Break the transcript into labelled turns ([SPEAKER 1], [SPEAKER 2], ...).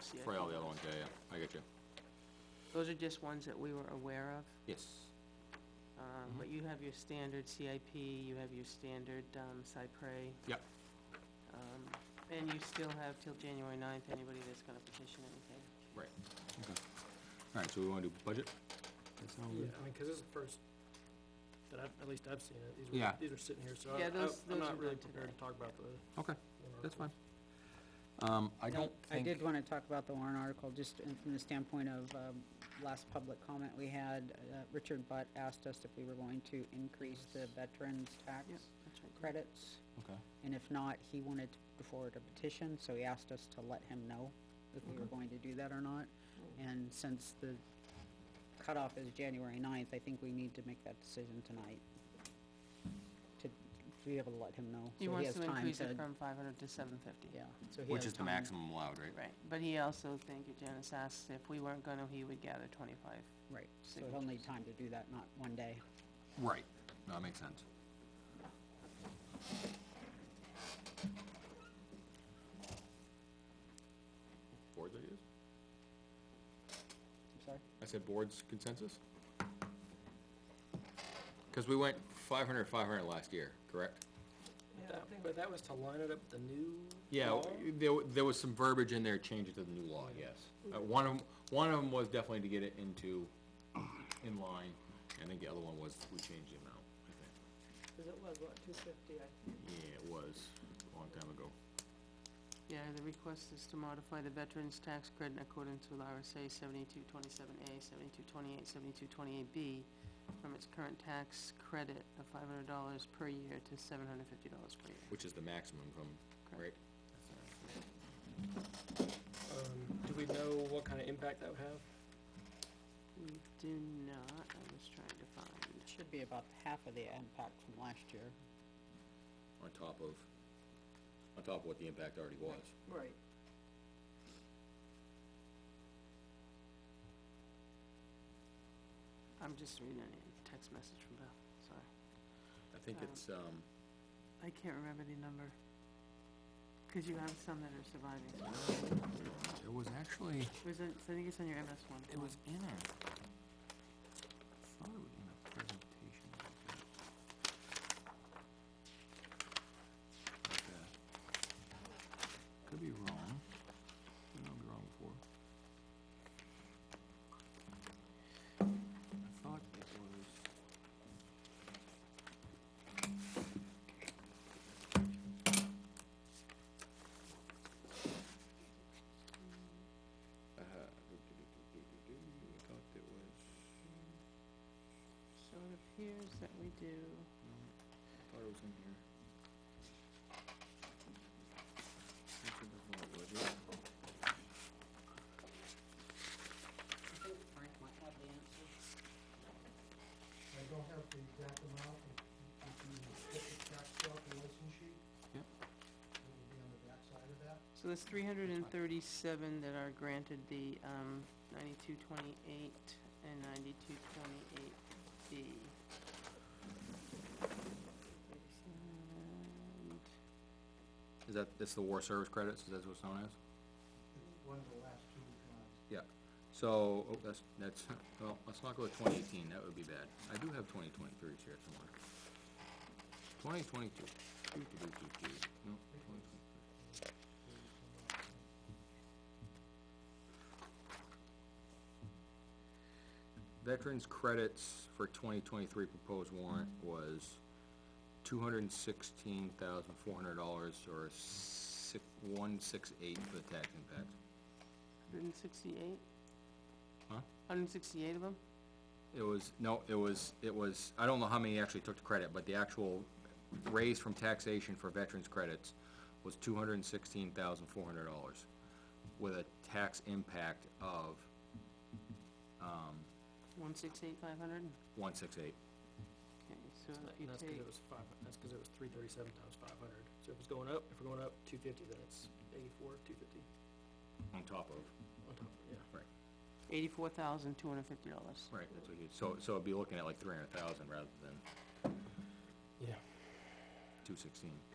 [SPEAKER 1] see. I
[SPEAKER 2] Probably all the
[SPEAKER 1] think
[SPEAKER 2] other ones, yeah, yeah, I get you.
[SPEAKER 1] Those are just ones that we were aware of.
[SPEAKER 2] Yes. Mm-hmm.
[SPEAKER 1] Um, But you have your standard CIP, you have your standard um, cypre.
[SPEAKER 2] Yep.
[SPEAKER 1] Um, And you still have till January 9th, anybody that's going to petition anything.
[SPEAKER 2] Right. Okay. All right, so we wanna do budget? That sound
[SPEAKER 3] Yeah,
[SPEAKER 2] good?
[SPEAKER 3] I mean, cause this is the first, that I've, at least I've seen it, these were,
[SPEAKER 2] Yeah.
[SPEAKER 3] these are sitting here, so I,
[SPEAKER 1] Yeah,
[SPEAKER 3] I-
[SPEAKER 1] those-
[SPEAKER 3] I'm
[SPEAKER 1] those are
[SPEAKER 3] not really
[SPEAKER 1] done
[SPEAKER 3] prepared to
[SPEAKER 1] today.
[SPEAKER 3] talk about the.
[SPEAKER 2] Okay,
[SPEAKER 3] warrant
[SPEAKER 2] that's
[SPEAKER 3] articles.
[SPEAKER 2] fine. Um, I
[SPEAKER 4] No,
[SPEAKER 2] don't
[SPEAKER 4] I
[SPEAKER 2] think,
[SPEAKER 4] did want to talk about the Warren article, just in- from the standpoint of um, last public comment we had. uh, Richard Butt asked us if we were going to increase the veterans tax
[SPEAKER 1] Yep, that's right.
[SPEAKER 4] credits,
[SPEAKER 2] okay,
[SPEAKER 4] and if not, he wanted to put forward a petition, so he asked us to let him know if we were going to do that or not. And since the cutoff is January 9th, I think we need to make that decision tonight to to be able to let him know. so
[SPEAKER 1] He wants
[SPEAKER 4] has
[SPEAKER 1] to
[SPEAKER 4] time
[SPEAKER 1] increase
[SPEAKER 4] to-
[SPEAKER 1] it from 500 to 750.
[SPEAKER 4] Yeah, so he
[SPEAKER 2] which is
[SPEAKER 4] has
[SPEAKER 2] the
[SPEAKER 4] time.
[SPEAKER 2] maximum allowed, right?
[SPEAKER 1] Right, but he also, thank you, Janice, asked if we weren't going to, he would gather 25.
[SPEAKER 4] Right, so he'll need time to do that, not one day.
[SPEAKER 2] Right, no, that makes sense. Boards ideas?
[SPEAKER 4] I'm sorry?
[SPEAKER 2] I said board's consensus? Cause we went 500, 500 last year, correct?
[SPEAKER 3] But that- But that was to line it up with the new
[SPEAKER 2] Yeah,
[SPEAKER 3] law?
[SPEAKER 2] w- there, w- there was some verbiage in there changing to the new law, yes. Uh, one of, 'em- one of them was definitely to get it into, in line, and I think the other one was, we changed the amount, I think.
[SPEAKER 4] Because it was, what, two fifty, I
[SPEAKER 2] Yeah, it was, a long time ago.
[SPEAKER 1] Yeah, the request is to modify the veterans' tax credit in accordance with RSA seventy-two twenty-seven A, seventy-two twenty-eight, seventy-two twenty-eight B from its current tax credit of five hundred dollars per year to seven hundred fifty dollars per year.
[SPEAKER 2] Which is the maximum from, right?
[SPEAKER 3] Um, do we know what kind of impact that would have?
[SPEAKER 1] We do not, I was trying to find,
[SPEAKER 4] Should be about half of the impact from last year.
[SPEAKER 2] On top of, on top of what the impact already was.
[SPEAKER 4] Right.
[SPEAKER 1] I'm just reading a text message from Beth, sorry.
[SPEAKER 2] I think
[SPEAKER 1] Um,
[SPEAKER 2] it's, um,
[SPEAKER 1] I can't remember the number. Cause you have some that are surviving.
[SPEAKER 2] it was actually,
[SPEAKER 1] Was it, I think it's on your MS one.
[SPEAKER 2] it was in a, I thought it was in a presentation. like that. Like, uh, Could be wrong, I know I'll be wrong before. I thought it was. Uh, I thought it was,
[SPEAKER 1] So it appears that we do.
[SPEAKER 2] no, I thought it was in here. I think that's what it was, yeah.
[SPEAKER 4] I think Frank might have the answer.
[SPEAKER 5] I don't have the exact amount, if if you get the tax calculation sheet.
[SPEAKER 2] Yep.
[SPEAKER 5] It will be on the backside of that.
[SPEAKER 1] So that's three hundred and thirty-seven that are granted the, um, ninety-two twenty-eight and ninety-two twenty-eight B.
[SPEAKER 2] Is that, that's the war service credits, is that what's known as?
[SPEAKER 5] It's one of the last two we've gone.
[SPEAKER 2] Yeah, so, oh, that's, that's, well, let's not go with twenty eighteen, that would be bad. I do have twenty twenty-three here somewhere. Twenty twenty-two, doo-doo-doo-doo-doo, no, twenty twenty-three. Veterans credits for twenty twenty-three proposed warrant was two hundred and sixteen thousand four hundred dollars, or six, one six eight for the tax impact.
[SPEAKER 1] Hundred and sixty-eight?
[SPEAKER 2] Huh?
[SPEAKER 1] Hundred and sixty-eight of them?
[SPEAKER 2] It was, no, it was, it was, I don't know how many actually took the credit, but the actual raise from taxation for veterans' credits was two hundred and sixteen thousand four hundred dollars, with a tax impact of
[SPEAKER 1] One six eight five hundred?
[SPEAKER 2] one six eight.
[SPEAKER 1] Okay, so if you
[SPEAKER 3] And that's cause
[SPEAKER 1] take,
[SPEAKER 3] it was five, that's cause it was three thirty-seven times five hundred, so if it's going up, if we're going up two fifty, then it's eighty-four, two fifty
[SPEAKER 2] On top of.
[SPEAKER 3] on top, of it, yeah.
[SPEAKER 2] Right,
[SPEAKER 1] eighty-four thousand, two hundred and fifty dollars.
[SPEAKER 2] right, that's what you, so, so it'd be looking at like three hundred thousand rather than
[SPEAKER 3] Yeah.
[SPEAKER 2] two sixteen.